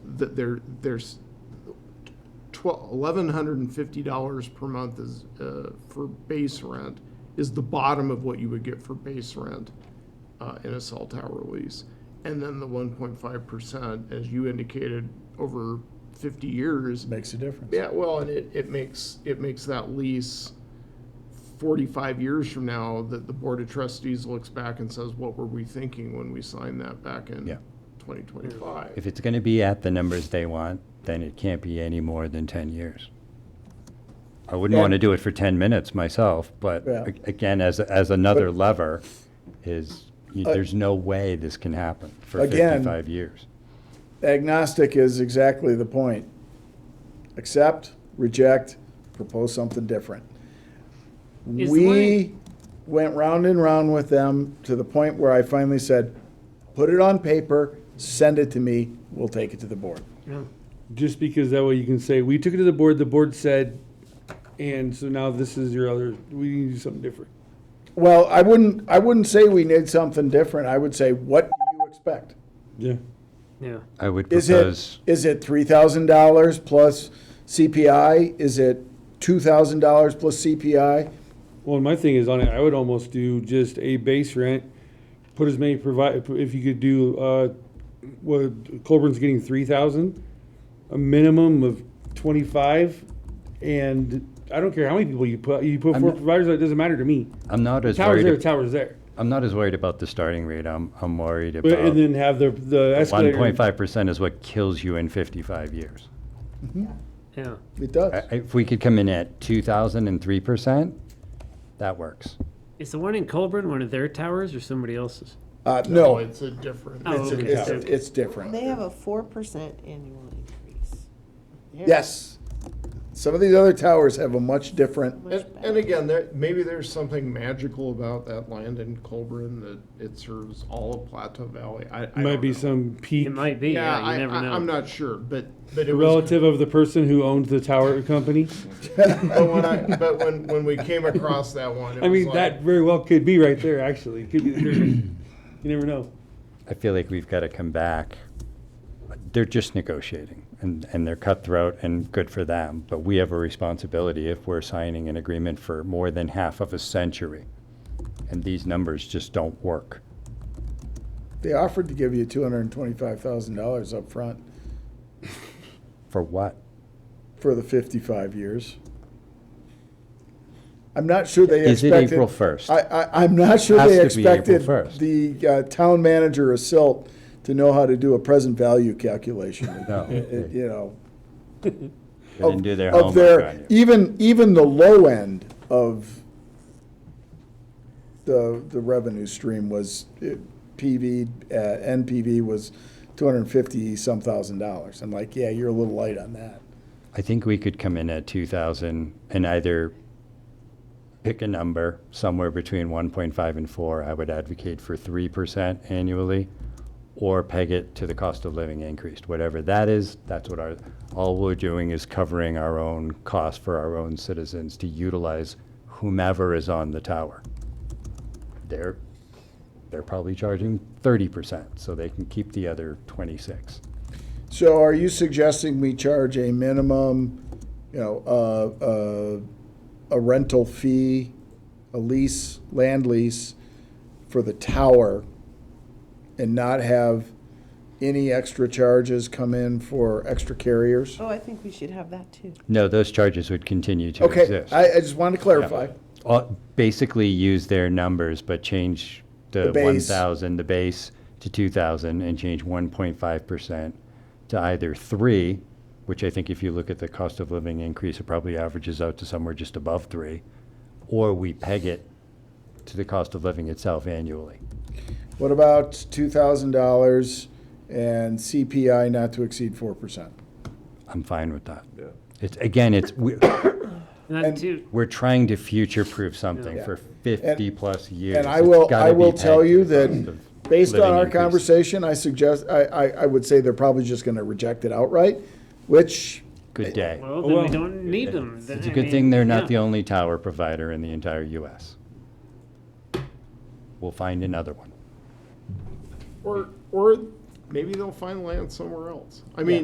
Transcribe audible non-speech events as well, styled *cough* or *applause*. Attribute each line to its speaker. Speaker 1: that there, there's twelve, eleven hundred and fifty dollars per month is, uh, for base rent, is the bottom of what you would get for base rent, uh, in a cell tower lease. And then the one point five percent, as you indicated, over fifty years,
Speaker 2: Makes a difference.
Speaker 1: yeah, well, and it, it makes, it makes that lease forty-five years from now, that the Board of Trustees looks back and says, what were we thinking when we signed that back in
Speaker 3: Yeah.
Speaker 1: twenty twenty-five?
Speaker 3: If it's going to be at the numbers they want, then it can't be any more than 10 years. I wouldn't want to do it for 10 minutes myself, but
Speaker 2: Yeah.
Speaker 3: a- again, as, as another lever is, you-
Speaker 2: Uh,
Speaker 3: there's no way this can happen for
Speaker 2: Again-
Speaker 3: 55 years.
Speaker 2: Agnostic is exactly the point. Accept, reject, propose something different.
Speaker 4: Is the
Speaker 2: We
Speaker 4: way-
Speaker 2: went round and round with them to the point where I finally said, put it on paper, send it to me, we'll take it to the board.
Speaker 5: Just because that way you can say, we took it to the board, the board said, and so now this is your other, we need to do something different.
Speaker 2: Well, I wouldn't, I wouldn't say we need something different. I would say, what do you expect?
Speaker 5: Yeah.
Speaker 4: Yeah.
Speaker 3: I would
Speaker 2: Is
Speaker 3: propose,
Speaker 2: it, is it three thousand dollars plus CPI? Is it two thousand dollars plus CPI?
Speaker 5: Well, and my thing is on it, I would almost do just a base rent, put as many provide, if you could do, uh, what, Colburn's getting three thousand, a minimum of twenty-five, and I don't care how many people you put, you put
Speaker 3: I'm
Speaker 5: four
Speaker 3: not-
Speaker 5: providers, it doesn't matter to me.
Speaker 3: I'm not as
Speaker 5: Tower's there,
Speaker 3: worried,
Speaker 5: tower's there.
Speaker 3: I'm not as worried about the starting rate. I'm, I'm worried
Speaker 5: But, and
Speaker 3: about
Speaker 5: then have the, the escalator.
Speaker 3: 1.5% is what kills you in 55 years.
Speaker 4: Yeah.
Speaker 2: It does.
Speaker 3: I- I- If we could come in at 2,003%, that works.
Speaker 4: Is the one in Colburn one of their towers or somebody else's?
Speaker 2: Uh, no,
Speaker 1: It's a different.
Speaker 4: Oh,
Speaker 2: it's,
Speaker 4: okay.
Speaker 2: it's,
Speaker 4: so-
Speaker 2: it's different.
Speaker 6: They have a four percent annual increase. They're
Speaker 2: Yes. Some of these other towers have a much different,
Speaker 6: much
Speaker 1: And,
Speaker 6: better.
Speaker 1: and again, there, maybe there's something magical about that land in Colburn, that it serves all of Plateau Valley, I, I don't
Speaker 5: Might be
Speaker 1: know.
Speaker 5: some peak.
Speaker 4: It might be.
Speaker 1: Yeah,
Speaker 4: Yeah, you
Speaker 1: I,
Speaker 4: never know.
Speaker 1: I, am not sure, but, but it was.
Speaker 5: relative of the person who owns the tower company.
Speaker 1: But when I, but when, when we came across that one, it
Speaker 5: I
Speaker 1: was
Speaker 5: mean,
Speaker 1: like.
Speaker 5: that very well could be right there, actually. Could be the third. You never know.
Speaker 3: I feel like we've got to come back. They're just negotiating and, and they're cutthroat and good for them. But we have a responsibility if we're signing an agreement for more than half of a century. And these numbers just don't work.
Speaker 2: they offered to give you two hundred and twenty-five thousand dollars up front
Speaker 3: For what?
Speaker 2: for the fifty-five years. I'm not sure they
Speaker 3: Is it
Speaker 2: expected.
Speaker 3: April 1st?
Speaker 2: I, I, I'm not sure
Speaker 3: Has
Speaker 2: they
Speaker 3: to be April
Speaker 2: expected
Speaker 3: 1st.
Speaker 2: the uh, town manager of Silt to know how to do a present value
Speaker 3: *laughs*
Speaker 2: calculation.
Speaker 3: No.
Speaker 2: It- it- You know.
Speaker 3: They didn't do their
Speaker 2: of
Speaker 3: homework
Speaker 2: their-
Speaker 3: on you.
Speaker 2: Even, even the low end of the, the revenue stream was uh, PV, uh, NPV was two hundred and fifty some thousand dollars. I'm like, yeah, you're a little light on that.
Speaker 3: I think we could come in at 2,000 and either pick a number somewhere between 1.5 and 4. I would advocate for 3% annually or peg it to the cost of living increased. Whatever that is, that's what our, all we're doing is covering our own costs for our own citizens to utilize whomever is on the tower. They're, they're probably charging 30%, so they can keep the other 26.
Speaker 2: So are you suggesting we charge a minimum, you know, uh, uh, a rental fee, a lease, land lease for the tower and not have any extra charges come in for extra carriers?
Speaker 6: Oh, I think we should have that too.
Speaker 3: No, those charges would continue to
Speaker 2: Okay,
Speaker 3: exist.
Speaker 2: I, I just wanted to clarify.
Speaker 3: uh, basically use their numbers, but change the
Speaker 2: The base.
Speaker 3: 1,000, the base, to 2,000, and change 1.5% to either 3, which I think if you look at the cost of living increase, it probably averages out to somewhere just above 3, or we peg it to the cost of living itself annually.
Speaker 2: What about two thousand dollars and CPI not to exceed four percent?
Speaker 3: I'm fine with that. It's, again, it's, we-
Speaker 4: Not
Speaker 2: And-
Speaker 4: too.
Speaker 3: we're trying to future-proof something
Speaker 4: Yeah.
Speaker 3: for 50-plus years.
Speaker 2: And I
Speaker 3: It's
Speaker 2: will,
Speaker 3: gotta
Speaker 2: I
Speaker 3: be
Speaker 2: will
Speaker 3: pegged
Speaker 2: tell
Speaker 3: to
Speaker 2: you
Speaker 3: the cost
Speaker 2: that,
Speaker 3: of
Speaker 2: based on
Speaker 3: living
Speaker 2: our
Speaker 3: increase.
Speaker 2: conversation, I suggest, I, I, I would say they're probably just gonna reject it outright, which,
Speaker 3: Good day.
Speaker 4: Well, then
Speaker 5: Well,
Speaker 4: we don't need them.
Speaker 3: Oh,
Speaker 4: Then,
Speaker 3: It's a
Speaker 4: I
Speaker 3: good
Speaker 4: mean,
Speaker 3: thing they're
Speaker 4: yeah.
Speaker 3: not the only tower provider in the entire US. We'll find another one.
Speaker 1: Or, or maybe they'll find land somewhere else. I mean,